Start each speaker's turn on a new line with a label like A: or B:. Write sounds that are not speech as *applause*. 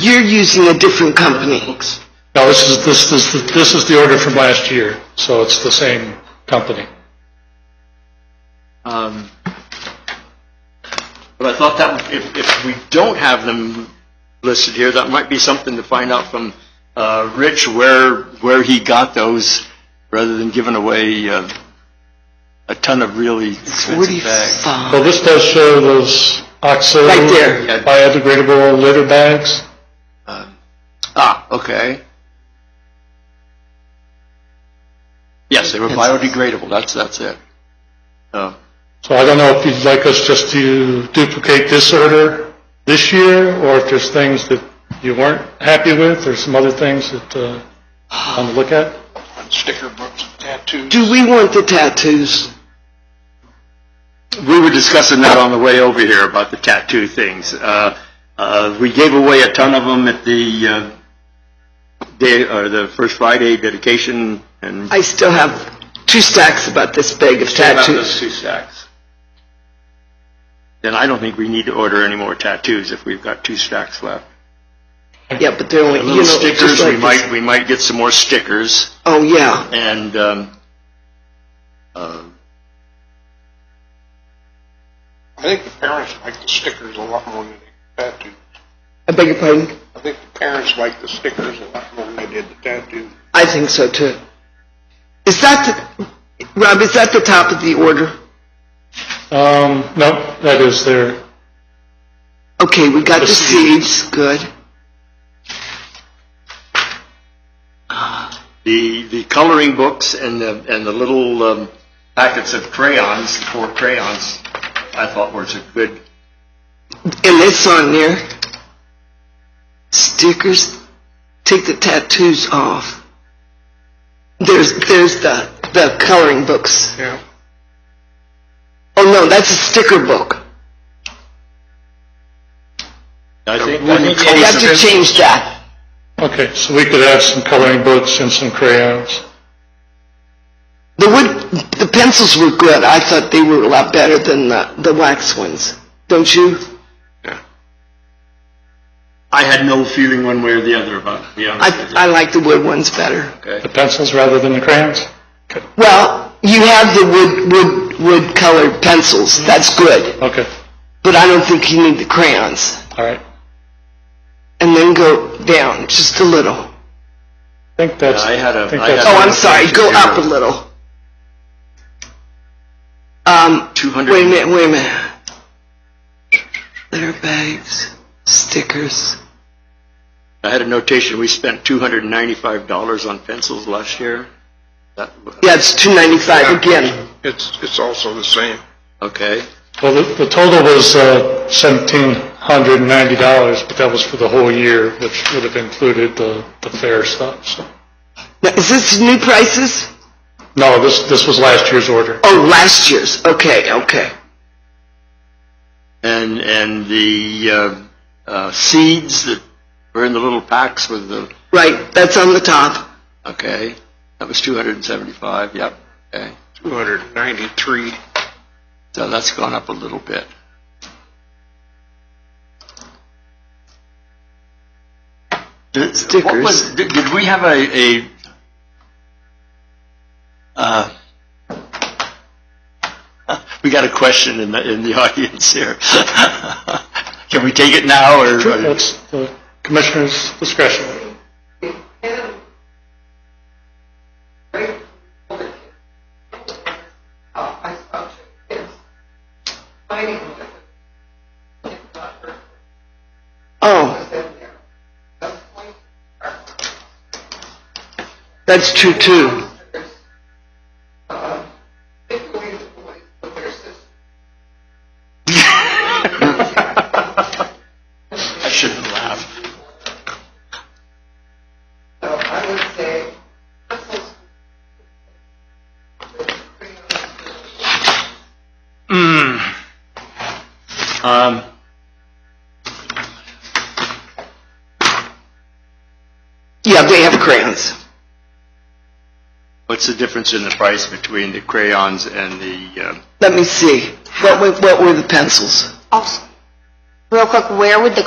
A: You're using a different company.
B: No, this is, this, this, this is the order from last year, so it's the same company.
C: Um, But I thought that if, if we don't have them listed here, that might be something to find out from, uh, Rich where, where he got those rather than giving away, uh, a ton of really expensive bags.
A: Forty-five.
B: Well, this does show those OXO.
A: Right there.
C: Yeah.
B: Biodegradable litter bags.
C: Um, Ah, okay. Yes, they were biodegradable. That's, that's it. Oh.
B: So I don't know if you'd like us just to duplicate this order this year, or if there's things that you weren't happy with, or some other things that, uh, you want to look at.
D: sticker books, tattoos.
A: Do we want the tattoos?
C: We were discussing that on the way over here about the tattoo things. Uh, uh, we gave away a ton of them at the, uh, day, or the first Friday dedication and.
A: I still have two stacks about this big of
C: About those
A: tattoos.
C: two stacks. Then I don't think we need to order any more tattoos if we've got two stacks left.
A: Yeah, but they're only, you know,
C: Little
A: just
C: stickers,
A: like
C: we
A: this-
C: might, we might get some more stickers.
A: Oh, yeah.
C: And, um, uh,
D: I think the parents like the stickers a lot more than the tattoos.
A: I beg your pardon?
D: I think the parents like the stickers a lot more than they did the tattoos.
A: I think so too. Is that, the, Rob, is that the top of the order?
B: Um, no, that is there.
A: Okay, we got
B: The
A: the
B: seeds.
A: seeds, good.
C: the, the coloring books and the, and the little um, packets of crayons, the four crayons, I thought was a good,
A: And that's on there. Stickers, take the tattoos off. There's, there's the, the coloring books.
D: Yeah.
A: Oh no, that's a sticker book.
C: I think, I
B: wooden
C: think
A: We
C: any
A: have to
C: sophi-
A: change that.
B: Okay, so we could have some coloring books and some crayons.
A: The wood, the pencils were good. I thought they were a lot better than the, the wax ones. Don't you?
C: I had no feeling one way or the other about it, to be
A: I,
C: honest with you.
A: I like the wood ones better.
B: The pencils rather than the crayons?
A: Well, you have the wood, wood, wood colored pencils. That's good.
B: Okay,
A: But I don't think you need the crayons.
B: all right.
A: And then go down just a little.
B: I think that's.
C: Yeah, I had a-
B: think
C: I
B: that's-
C: had
A: Oh, I'm sorry. Go up a little. Um,
C: 200.
A: wait a minute, wait a minute. Litter bags, stickers.
C: I had a notation, we spent two hundred and ninety-five dollars on pencils last year. That,
A: Yeah, it's 295 again.
D: It's, it's also the same.
C: okay.
B: Well, the, the total was, uh, seventeen hundred and ninety dollars, but that was for the whole year, which would have included the, the fair stuff, so.
A: Now, is this new prices?
B: No, this, this was last year's order.
A: Oh, last year's. Okay, okay.
C: And, and the, uh, uh, seeds that were in the little packs with the,
A: Right, that's on the top.
C: okay, that was two hundred and seventy-five, yep, okay.
D: Two hundred and ninety-three.
C: So that's gone up a little bit. Did, what was, did, did we have a, a, uh, *laughs* we got a question in the, *laughs* in the audience here. Can we take it now or?
B: That's the commissioner's discretion.
A: Oh. That's true too.
C: I shouldn't laugh. Hmm. Um,
A: Yeah, they have crayons.
C: what's the difference in the price between the crayons and the, um,
A: Let me see. What were, what were the pencils?
E: Also, real quick, where would the